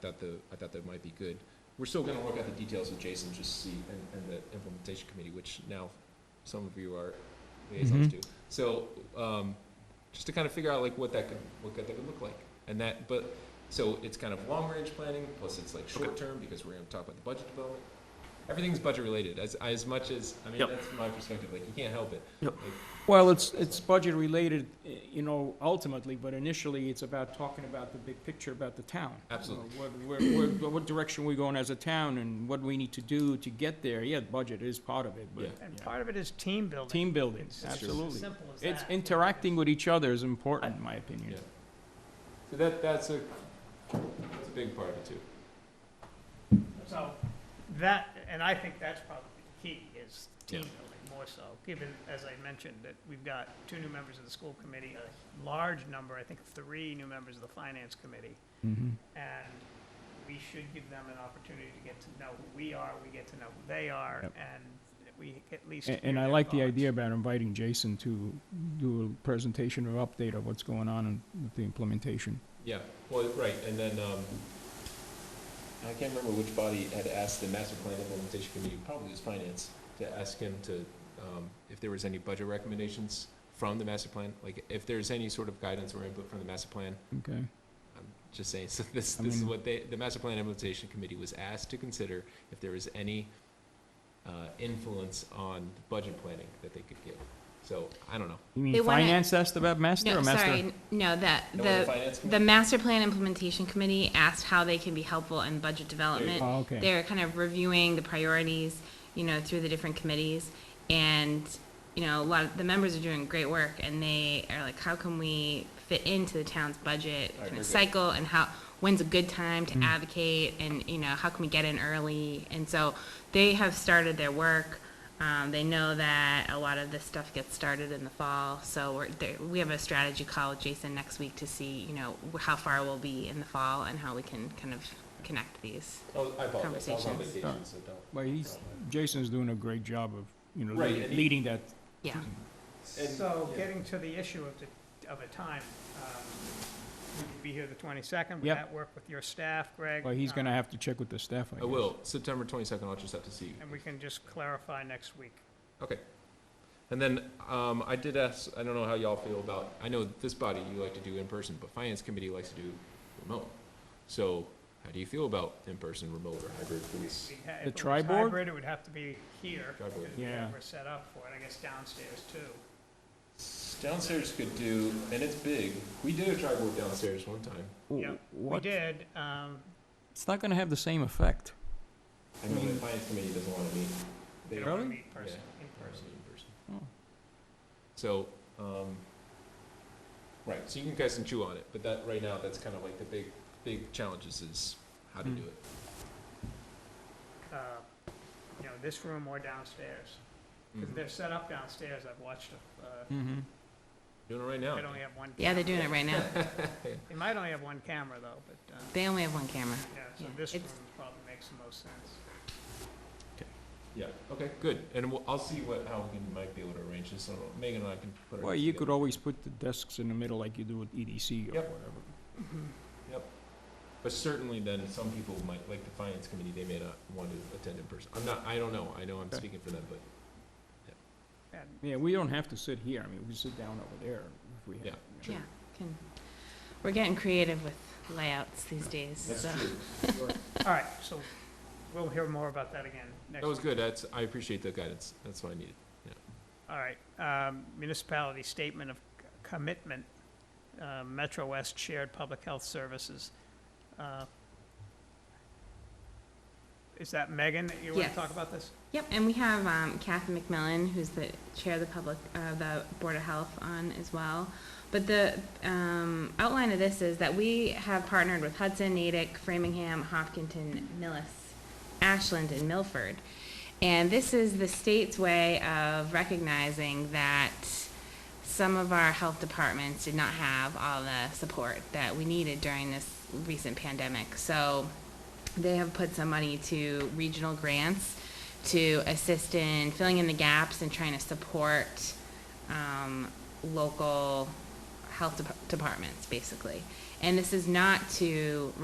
thought the, Um, uh, I thought that might be good. We're still gonna work out the details with Jason, just see, and, and the implementation committee, which now some of you are liaisons to. So, um, just to kind of figure out like what that could, what that could look like. And that, but, so it's kind of long-range planning, plus it's like short-term, because we're gonna talk about the budget development. Everything's budget-related, as, as much as, I mean, Yep. that's my perspective, like, you can't help it. Yep. Like, Well, it's, it's budget related, eh, you know, ultimately, but initially, it's about talking about the big picture about the town. Absolutely. You know, What, where- where- what direction we're going as a town and what we need to do to get there. Yeah, budget is part of it, but. Yeah. And yeah. part of it is team building. Team building, It's just absolutely. Simple as It's that. interacting with each other is important, in my Yeah. opinion. So that, that's a, that's a big part of it too. So that, and I think that's probably the key, is team Yeah. building more so, given, as I mentioned, that we've got two new members of the school committee, a large number, I think three new members of the finance committee, Mhm. and we should give them an opportunity to get to know who we are, we get to know who they are, Yep. and we at least. A- hear And I their like the thoughts. idea about inviting Jason to do a presentation or update of what's going on in- with the implementation. Yeah, well, right, and then, um, I can't remember which body had asked the master plan implementation committee, probably it was finance, to ask him to, um, if there was any budget recommendations from the master plan, like, if there's any sort of guidance or input from the master plan, Okay, I'm just saying, so this, I this is mean- what they, the master plan implementation committee was asked to consider if there was any, uh, influence on budget planning that they could give. So, I don't know. you They mean wanna- finance asked about master No, or master? sorry, n- no, that, That was the, finance the committee? master plan implementation committee asked how they can be helpful in budget development. Oh, okay. They're kind of reviewing the priorities, you know, through the different committees, and, you know, a lot of, the members are doing great work, and they are like, how can we fit into the town's right, budget kind we're of good. cycle, and how, when's a good time to advocate, and, you know, how can we get in early? And so, they have started their work, um, they know that a lot of this stuff gets started in the fall, so we're, there, we have a strategy call with Jason next week to see, you know, wh- how far we'll be in the fall and how we can kind of connect these. Oh, I apologize, I was on Conversations. vacation, so don't. Well, he's, Jason's doing a great job of, you know, Right, leading- and he- leading that. Yeah. And- So yeah. getting to the issue of the, of a time, um, we could be here the twenty-second, would Yep. that work with your staff, Greg? Well, he's Um, gonna have to check with the staff, I I guess. will, September twenty-second, I'll just have to see you. And we can just clarify next week. Okay. And then, um, I did ask, I don't know how y'all feel about, I know this body you like to do in person, but finance committee likes to do remote. So how do you feel about in-person, remote, or hybrid for this? We'd ha- The If it was tri-board? hybrid, it would have to be here, Tri-board. because we Yeah. were set up for it, I guess downstairs too. Downstairs could do, and it's big, we did a tri-board downstairs one time. W- Yep, We what? did, um, It's not gonna have the same effect. I know the finance committee doesn't wanna meet. they Mm-hmm. They don't want to Really? meet person, in person. in Oh. person. So, um, right, so you can guys can chew on it, but that, right now, that's kind of like the big, big challenges is how to Hmm. do it. Uh, You know, this room or downstairs, Mm-hmm. Hmm. because they're set up downstairs, I've watched, uh, Mm-hmm. Doing it right now. they only have one. Yeah, they're doing camera. it right now. They might only have one camera though, but, uh, They only have one camera. yeah, so Yeah, this room it's- probably makes the most sense. Yeah, okay, good, and we'll, I'll see what, how we can, might be able to arrange this, I don't know. Megan and I can put it Well, you could together. always put the desks in the middle like you do with EDC Yep. or whatever. Mm-hmm. But certainly then, some people might, like the finance committee, they may not want to attend in person, I'm not, I don't know, I know I'm Okay. speaking for them, but, And Yeah, we don't have to sit here. I mean, we sit down over there if we have. Yeah. you know. Yeah, can, we're getting creative with layouts these days, that's so. true. All right, so we'll hear more about that again next. That was week. good, that's, I appreciate the guidance, that's what I needed. All right, um, municipality statement of c- commitment, uh, Metro West Shared Public Health Services. Uh, Is that Megan that you want to Yes. talk about this? Yep, and we have um, Kathy McMillan, who's the chair of the public, uh, the Board of Health on as well. But the um, outline of this is that we have partnered with Hudson, Natick, Framingham, Hopkinton, Millis, Ashland, and Milford. And this is the state's way of recognizing that some of our health departments did not have all the support that we needed during this recent pandemic. So they have put some money to regional grants to assist in filling in the gaps and trying to support um, local health dep- departments, basically. And this is not to